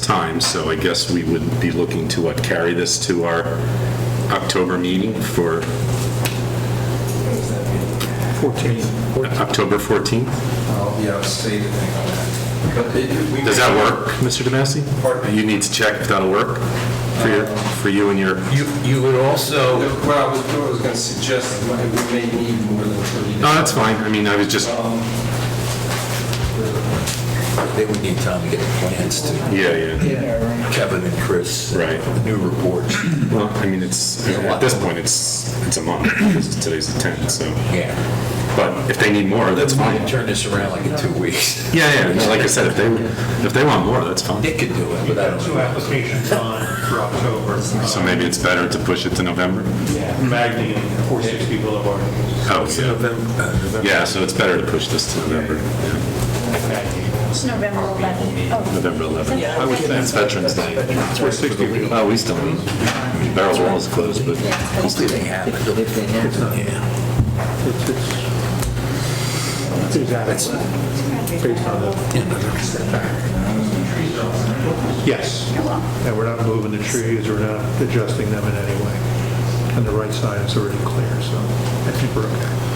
time, so I guess we would be looking to, what, carry this to our October meeting for October 14th? I'll be out of state, I think, on that. But it- we- Does that work, Mr. Domessi? Pardon me? You need to check if that'll work for your, for you and your, You, you would also, What I was doing was going to suggest that we may need more than 30 days. no, that's fine. I mean, I was just, they would need time to get the plans to yeah, yeah. Kevin and Chris. Right. The New reports. Well, I mean, it's, at this point, it's, it's a month, because today's the 10th, so. Yeah. But if they need more, that's fine. Might Turn this around like in two weeks. Yeah, yeah, no, like I said, if they, if they want more, that's fine. Nick could do it, but I don't Two know. applications on for October. So maybe it's better to push it to November? Magny and 460 Boulevard. Oh, yeah. Yeah, so it's better to push this to November, yeah, It's November 11th. Oh, November 11th. I would say. It's Veterans Day. It's where 60. Oh, we still, I mean, Barrel Wall is closed, but Hopefully they have it. If they have it. Yeah. That's based on the. Yes. And we're not moving the trees, we're not adjusting them in any way. And the right side is already clear, so I think we're okay.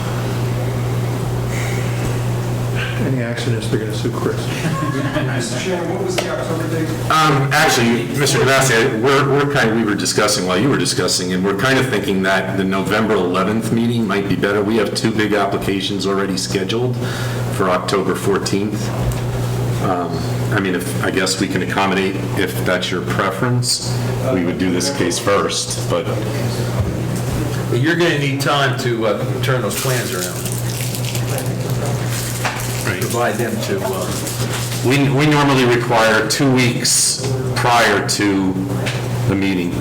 Any accidents, they're going to sue Chris. Mr. Chairman, what was the October date? Um, actually, Mr. Devassi, we're, we're kind, we were discussing while you were discussing, and we're kind of thinking that the November 11th meeting might be better. We have two big applications already scheduled for October 14th. Um, I mean, if, I guess we can accommodate, if that's your preference, we would do this case first, but, But You're going to need time to uh, turn those plans around. Provide them to, uh, we, we normally require two weeks prior to the meeting.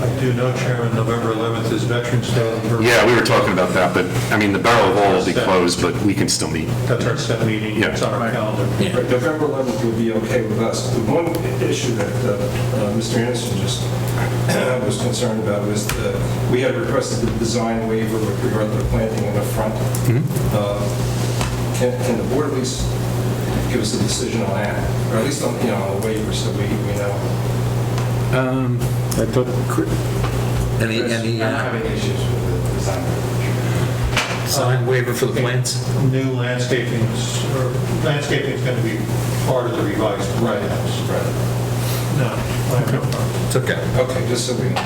I do know, Chairman, November 11th is Veterans Day. Yeah, we were talking about that, but, I mean, the Barrel Wall will be closed, but we can still meet. That's our set meeting, Yeah. it's on our calendar. Yeah. Right, November 11th would be okay with us. The one issue that uh, uh, Mr. Anderson just was concerned about was the, we had requested the design waiver with regard to the planting in the front. Mm-hmm. Uh, Can can the board at least give us a decision on that, or at least on, you know, on the waiver, so we we know? any, any uh, issues with the design sign waiver for the plans? New landscaping, landscaping is going to be part of the revised Right, plans. right. No, I have no problem. It's okay. Okay, just so we know.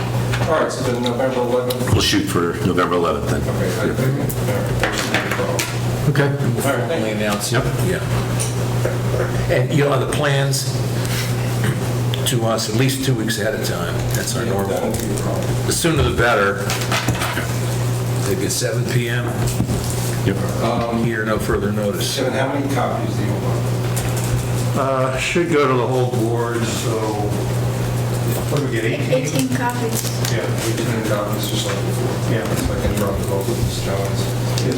All right, so then November 11th. We'll shoot for November 11th then. Okay, I think, all right, that should be a problem. Okay. All right, thank Only you. announce. Yep. Yeah. And, you know, the plans to us at least two weeks ahead of time. That's our That normal. won't be a problem. The sooner the better. Maybe at 7 PM Um, here, no further notice. Kevin, how many copies do you want? Uh, Should go to the whole board, so, what do we get, 18? 18 copies. Yeah, We did it out, Mr. Sullivan. Yeah. So I can drop the vote with Ms. Jones. Okay.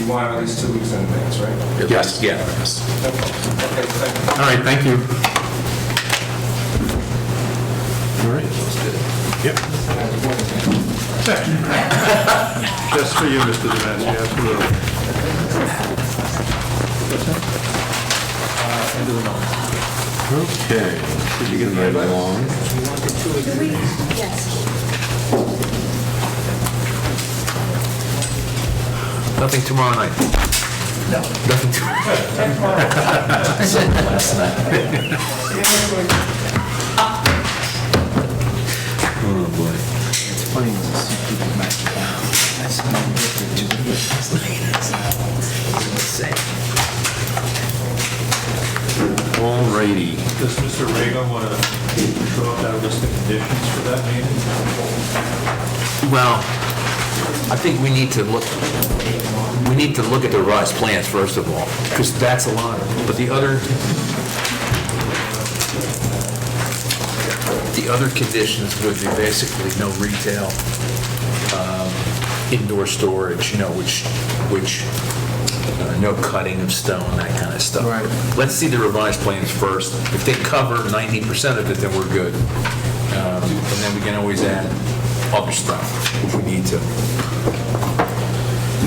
You want at least two weeks in advance, right? Yes. Yeah. Yes. Okay, thank you. All right, thank you. All right. Yep. just for you, Mr. Domesky, absolutely. Okay. Moving right along. Do we? Yes. Nothing tomorrow night? No. Nothing tomorrow? I said last night. Oh, boy. All righty. Does Mr. Reagan want to throw up that list of conditions for that meeting? Well, I think we need to look, we need to look at the revised plans, first of all, because that's a lot. But the other, the other conditions would be basically no retail, um, indoor storage, you know, which, which, uh, no cutting of stone, that kind of stuff. Right. Let's see the revised plans first. If they cover 90% of it, then we're good. Um, And then we can always add other stuff if we need to. Do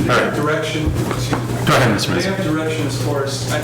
they All right. have direction? Excuse me. Go ahead, Mr. Do Massey. they have direction as far as, I